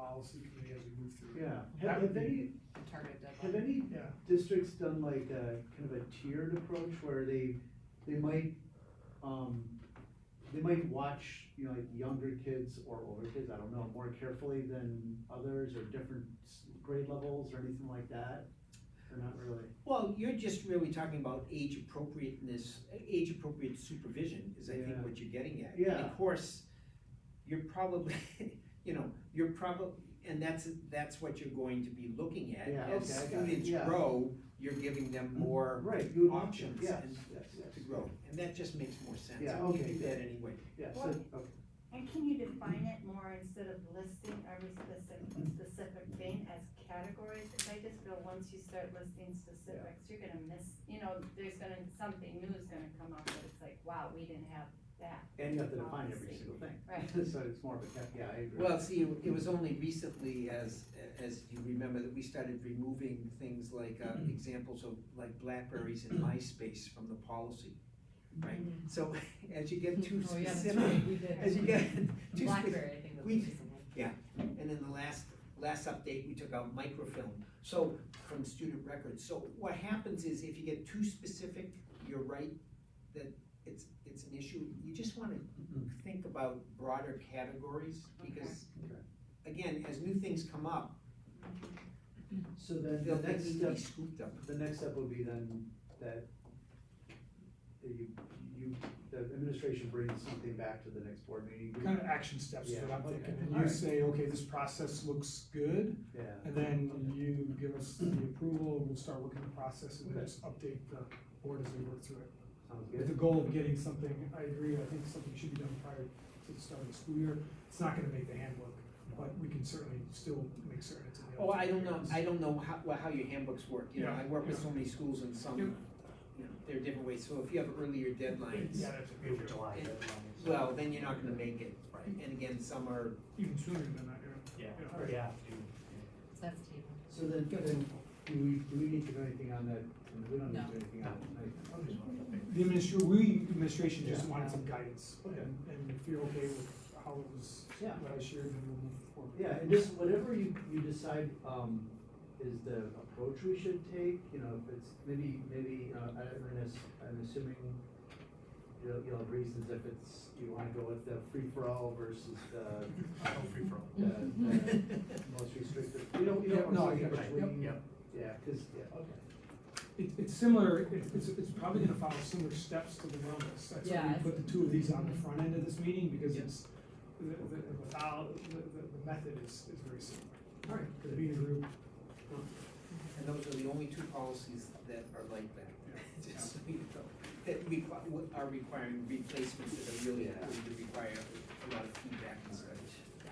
policy committee as we move through. Yeah, That have, would have be- any, target have deadline. any Yeah. districts done like a kind of a tiered approach where they, they might, um, they might watch, you know, like younger kids or older kids, I don't know, more carefully than others or different s- grade levels or anything like that? Or not really? Well, you're just really talking about age appropriateness, age appropriate supervision is I think Yeah. what you're getting at. And Yeah. of course, you're probably, you know, you're probably, and that's, that's what you're going to be looking at. Yeah, As okay, I got it, students yeah. Mm-hmm. grow, you're giving them more Right, you would want to, options yes, and yes, yes. to grow, and that just makes more sense. Yeah, We okay, do that good. anyway. Yeah, so, Well- okay, And can you define it more instead of listing every specific, specific thing as categories? Cause I just feel once you start listing specifics, you're gonna miss, you know, there's gonna, something new is gonna come up that it's like, wow, we didn't have that. and you have to define every Policy. single thing. Right. So it's more of a, tech- yeah, I agree. Well, see, it it was only recently, as, as you remember, that we started removing things like, uh, Mm-hmm. examples of, like Blackberries and MySpace from the policy, right? Mm-hmm. So, as you get too Oh, yeah, that's specific, right, we did. as you get too specific, Blackberry, I think was we- recently. and then the last, last update, we took out microfilm, so, from student records. So what happens is, if you get too specific, you're right, that it's, it's an issue, you just wanna Mm-hmm. think about broader categories, because, Okay. again, as new things come up, So then they'll, the they next need to step be scooped up. The next step would be then that that you, you, the administration brings something back to the next board meeting. Kind of action steps is what I'm Yeah, okay. thinking, and you Alright. say, okay, this process looks good, Yeah, and then you give us the approval, we'll start working the process and then just update the board as we work through it. sounds With the good. goal of getting something, I agree, I think something should be done prior to the start of the school year, it's not gonna make the handbook, but we can certainly still make certain it's in the. Oh, I don't know, I don't know how, well, how your handbooks work, you know, Yeah, I work with yeah. so many schools and some, you Yep. know, there are different ways, so if you have earlier deadlines, Yeah, that's a good job. July Yeah. deadlines. well, then you're not gonna make it. And again, some are, Even sooner than that, Yeah, yeah. Yeah. or you have to. So that's table. So then, then, do we, do we need to do anything on that, we don't need to do anything on I'm just wondering. The administr, we, administration just Yeah. wanted some guidance, and, Okay. and if you're okay with how it was, Yeah. what I shared, then we'll move forward. Yeah, and just whatever you, you decide, um, is the approach we should take, you know, if it's, maybe, maybe, uh, I, I'm, ass- I'm assuming you'll, you'll have reasons if it's, you wanna go with the free-for-all versus the, I don't free for all. the, the most restrictive, you don't, you Yep, don't no, want I something get it. between. Yep, Yeah, cause, yeah, okay, It, it's similar, it's, it's, it's probably gonna follow similar steps to the wellness, that's why Yeah, we put the two of these on the front end of this meeting, because it's, the, the, the, method- the, the, the method is, is very similar. alright, Could be in a group, and those are the only two policies that are like that. Just so you know, That we, are requiring replacements that are really, Yeah. going to require a lot of feedback and such.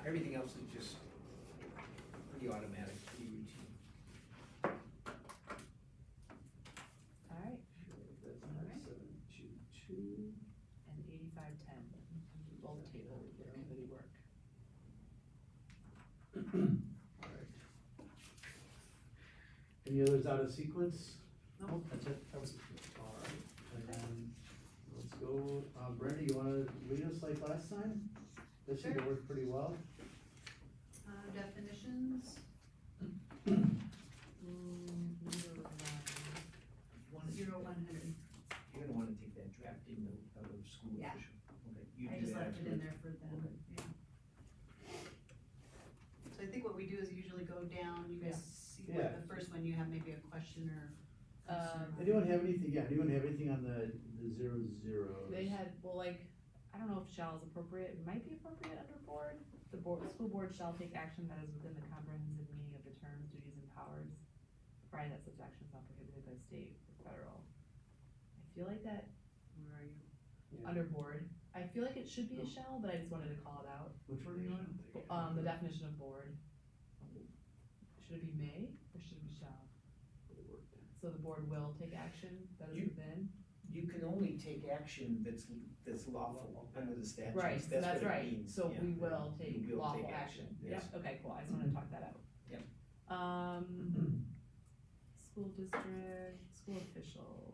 Everything else is just pretty automatic, pretty routine. Alright, sure, that's nine, seven, two, two. and eighty-five, ten, both table, committee work. Alright. Any others out of sequence? No. That's it? That was. Alright, and then, let's go, um, Brenda, you wanna lead us like last time? That seemed to work pretty well. Uh, definitions, Mm-hmm. You wanna- zero one hundred. You're gonna wanna take that draft in the, out of school Yeah. official. Okay, you I do just that left it in afterwards. there for them, Okay. yeah. So I think what we do is usually go down, you guys see what Yeah. the first one, you have maybe a question or. Um, Anyone have anything, yeah, anyone have anything on the, the zero zeros? They had, well, like, I don't know if shall is appropriate, it might be appropriate under board. The board, the school board shall take action that is within the comprehensive meaning of the terms, duties, and powers, provided that such action is not prohibited by state or federal. I feel like that, where are you? Yeah. Under board, I feel like it should be a shall, but I just wanted to call it out, Which one are you on? um, the definition of board. Should it be may, or should it be shall? So the board will take action that is You- within, You can only take action that's, that's lawful under the statutes. right, so that's what it right, means, so yeah. we will You take will lawful take action, action, yeah, yes. okay, cool, I just wanted to talk that out. Yep. Um, school district, school official, Um,